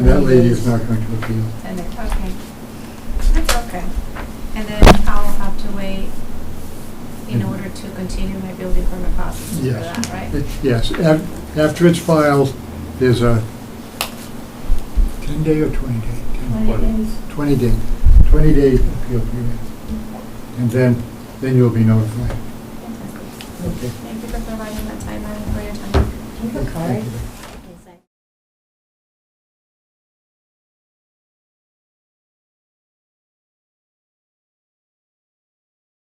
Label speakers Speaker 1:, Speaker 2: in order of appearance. Speaker 1: That lady is not going to appeal.
Speaker 2: And then, okay. That's okay. And then I'll have to wait in
Speaker 1: Mhm.
Speaker 2: order to continue my building permit process for
Speaker 1: Yes.
Speaker 2: that, right?
Speaker 1: It- Yes, af- after it's filed, there's a 10-day or 20-day? 20-day, 20-day appeal period. And then, then you'll be notified.
Speaker 2: Fantastic.
Speaker 1: Okay.
Speaker 2: Thank you for providing that timeline and for your time.
Speaker 3: Can you go, Cory?
Speaker 1: Thank you.